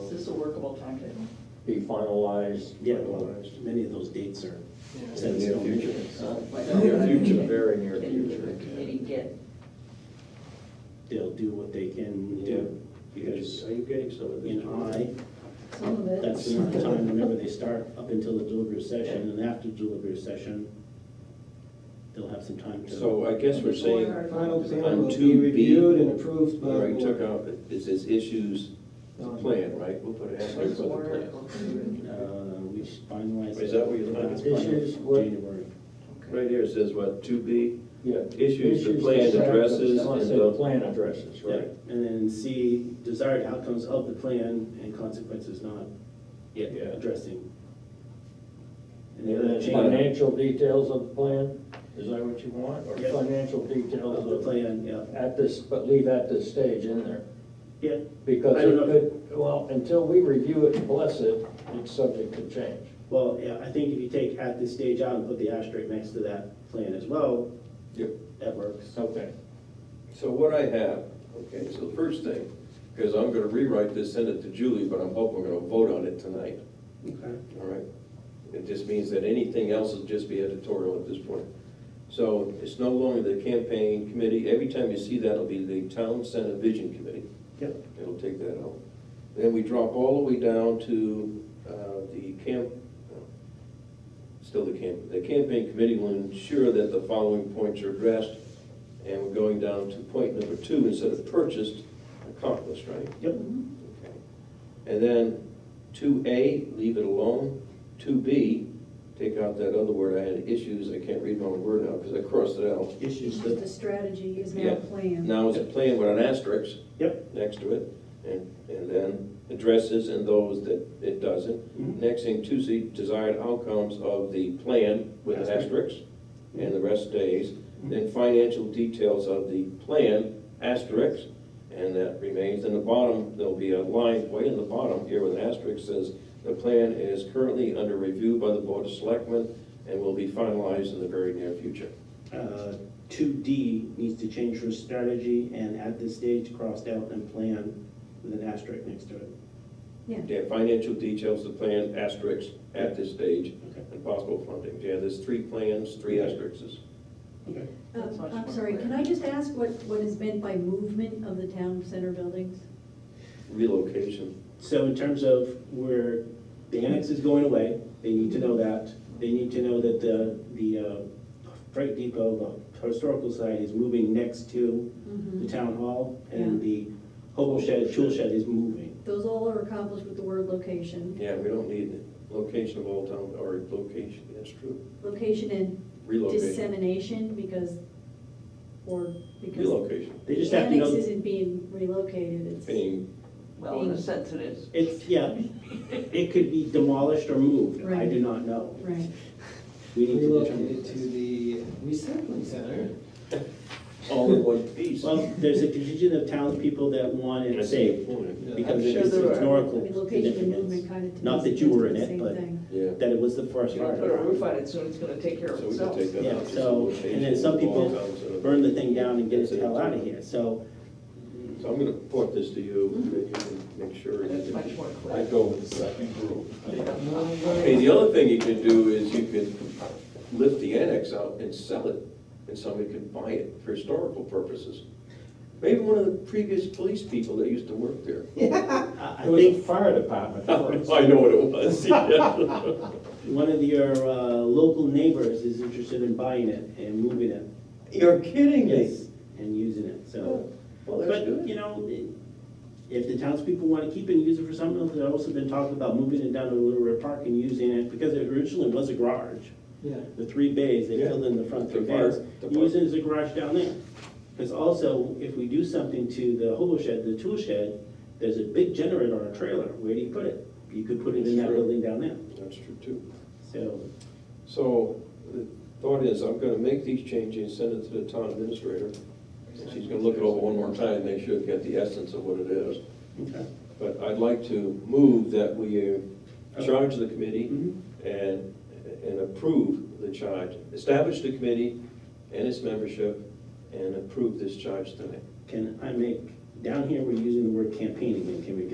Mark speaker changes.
Speaker 1: workable timetable.
Speaker 2: be finalized.
Speaker 3: Yeah, well, many of those dates are
Speaker 2: In
Speaker 3: set
Speaker 2: the
Speaker 3: in
Speaker 2: near
Speaker 3: stone.
Speaker 2: future.
Speaker 3: So
Speaker 2: Near future, very near
Speaker 1: Can the
Speaker 2: future.
Speaker 1: committee get,
Speaker 3: They'll do what they can do, because
Speaker 4: Are you getting some of this?
Speaker 3: in I,
Speaker 5: Some of it.
Speaker 3: that's the time whenever they start, up until the deliberative session, and after deliberative session, they'll have some time to.
Speaker 4: So I guess we're saying,
Speaker 6: Our final plan
Speaker 4: On
Speaker 6: will be
Speaker 4: 2B,
Speaker 6: reviewed and approved by
Speaker 4: where I
Speaker 6: the
Speaker 4: took
Speaker 6: board.
Speaker 4: out, it says issues, the plan, right? We'll put an asterisk on the plan.
Speaker 3: Uh, we should finalize.
Speaker 4: Is that what you're looking at?
Speaker 3: Uh, Issues,
Speaker 2: What?
Speaker 3: January.
Speaker 1: okay,
Speaker 4: Right here, it says what, two B?
Speaker 2: Yeah.
Speaker 4: Issues the plan addresses
Speaker 2: I want to
Speaker 4: and
Speaker 2: say the
Speaker 4: the,
Speaker 2: plan addresses,
Speaker 3: Yeah,
Speaker 2: right?
Speaker 3: and then C, desired outcomes of the plan and consequences not yet
Speaker 4: Yeah.
Speaker 3: addressing. And the other change
Speaker 2: Financial details of the plan, is that what you want? Or
Speaker 3: Yes.
Speaker 2: financial
Speaker 3: of the
Speaker 2: details of,
Speaker 3: plan, yeah,
Speaker 2: at this, but leave at this stage in there.
Speaker 3: yeah,
Speaker 2: Because
Speaker 3: I
Speaker 2: it
Speaker 3: don't know.
Speaker 2: could, well, until we review it and bless it, it's subject to change.
Speaker 3: well, yeah, I think if you take at this stage out and put the asterisk next to that plan as well,
Speaker 4: Yep.
Speaker 3: that works.
Speaker 2: Okay.
Speaker 4: so what I have, okay, so the first thing, because I'm gonna rewrite this, send it to Julie, but I'm hoping we're gonna vote on it tonight,
Speaker 3: Okay.
Speaker 4: all right? It just means that anything else will just be editorial at this point. So it's no longer the campaign committee, every time you see that, it'll be the town senate vision committee.
Speaker 3: Yep,
Speaker 4: It'll take that out. Then we drop all the way down to uh, the camp, uh, still the camp, the campaign committee will ensure that the following points are addressed. And we're going down to point number two, instead of purchased, accomplished, right?
Speaker 3: yep,
Speaker 4: Okay. And then two A, leave it alone. Two B, take out that other word, I had issues, I can't read my own word now because I crossed it out.
Speaker 3: issues,
Speaker 5: Just
Speaker 3: that-
Speaker 5: the strategy is
Speaker 4: Yeah.
Speaker 5: now planned.
Speaker 4: Now it's a plan with an asterisk
Speaker 3: yep,
Speaker 4: next to it, and, and then addresses and those that it doesn't.
Speaker 3: Mhm.
Speaker 4: Next thing, two C, desired outcomes of the plan with an asterisk, and the rest stays. Then financial details of the plan, asterisk, and that remains. In the bottom, there'll be a line way in the bottom here with an asterisk says, the plan is currently under review by the Board of Selectmen and will be finalized in the very near future.
Speaker 3: uh, two D needs to change from strategy and at this stage crossed out and plan with an asterisk next to it.
Speaker 4: Yeah, financial details, the plan, asterisks at this stage,
Speaker 3: Okay.
Speaker 4: and possible funding. Yeah, there's three plans, three asterisks.
Speaker 3: Okay.
Speaker 1: That's
Speaker 5: Um,
Speaker 1: much
Speaker 5: I'm
Speaker 1: more
Speaker 5: sorry,
Speaker 1: clear.
Speaker 5: can I just ask what, what is meant by movement of the town center buildings?
Speaker 4: Relocation.
Speaker 3: So in terms of where the annex is going away, they need to know that. They need to know that the, the uh, Freight Depot, the Historical Society is moving next to the town hall and the hobo shed, tool shed is moving.
Speaker 5: Those all are accomplished with the word location,
Speaker 4: Yeah, we don't need location of all town, or location, that's true.
Speaker 5: location and
Speaker 4: Relocation.
Speaker 5: dissemination because, or because
Speaker 4: Relocation.
Speaker 3: They just
Speaker 5: the
Speaker 3: have to
Speaker 5: annex
Speaker 3: know,
Speaker 5: isn't being relocated, it's.
Speaker 4: Being,
Speaker 1: well, in a sense it is.
Speaker 3: it's, yeah, it could be demolished or moved. I do
Speaker 5: Right.
Speaker 3: not know.
Speaker 5: Right.
Speaker 3: We need to determine
Speaker 6: Relocated to
Speaker 3: this.
Speaker 6: the recycling center.
Speaker 4: all in one piece.
Speaker 3: Well, there's a contingent of townspeople that want it
Speaker 4: That's the
Speaker 3: saved
Speaker 4: point.
Speaker 3: because of
Speaker 1: sure
Speaker 3: its
Speaker 1: there are.
Speaker 5: I
Speaker 3: historical
Speaker 5: mean, location and movement
Speaker 3: significance.
Speaker 5: kind of. to me
Speaker 3: Not that you
Speaker 5: seems
Speaker 3: were
Speaker 5: like
Speaker 3: in
Speaker 5: the
Speaker 3: it,
Speaker 5: same
Speaker 3: but-
Speaker 5: thing.
Speaker 4: Yeah.
Speaker 3: That it was the forest
Speaker 1: You're
Speaker 3: fire.
Speaker 1: gonna put a roof on it soon, it's gonna take care of
Speaker 4: So we can
Speaker 1: itself.
Speaker 4: take that out.
Speaker 3: Yeah, so- and then some people burn the thing down and get it the hell out of here, so.
Speaker 4: So I'm gonna point this to you, and you can make sure.
Speaker 1: That's much more clear.
Speaker 4: I go with the second group. Hey,
Speaker 6: Number-
Speaker 4: the other thing you could do is you could lift the annex out and sell it, and somebody could buy it for historical purposes. Maybe one of the previous police people that used to work there.
Speaker 3: I I
Speaker 2: It was a
Speaker 3: think
Speaker 2: fire department first.
Speaker 4: I know what it was, yeah.
Speaker 3: one of your uh, local neighbors is interested in buying it and moving it.
Speaker 4: You're kidding me?
Speaker 3: Yes, and using it, so.
Speaker 4: Oh, Well, that's
Speaker 3: But, you
Speaker 4: good.
Speaker 3: know, if the townspeople want to keep it and use it for something else, they've also been talking about moving it down to Little Red Park and using it, because it originally was a garage.
Speaker 6: Yeah.
Speaker 3: the three bays, they
Speaker 4: Yeah.
Speaker 3: filled in the front three
Speaker 4: The park,
Speaker 3: bays.
Speaker 4: the park.
Speaker 3: Use it as a garage down there. Because also, if we do something to the hobo shed, the tool shed, there's a big generator on a trailer, where do you put it? You could put it in that
Speaker 4: Sure.
Speaker 3: building down there,
Speaker 4: That's true too.
Speaker 3: so.
Speaker 4: So the thought is, I'm gonna make these changes, send it to the town administrator, and she's gonna look it over one more time, make sure you get the essence of what it is.
Speaker 3: okay.
Speaker 4: But I'd like to move that we uh, charge the committee
Speaker 3: Mhm.
Speaker 4: and, and approve the charge. Establish the committee and its membership and approve this charge tonight.
Speaker 3: Can I make, down here, we're using the word campaign again, can we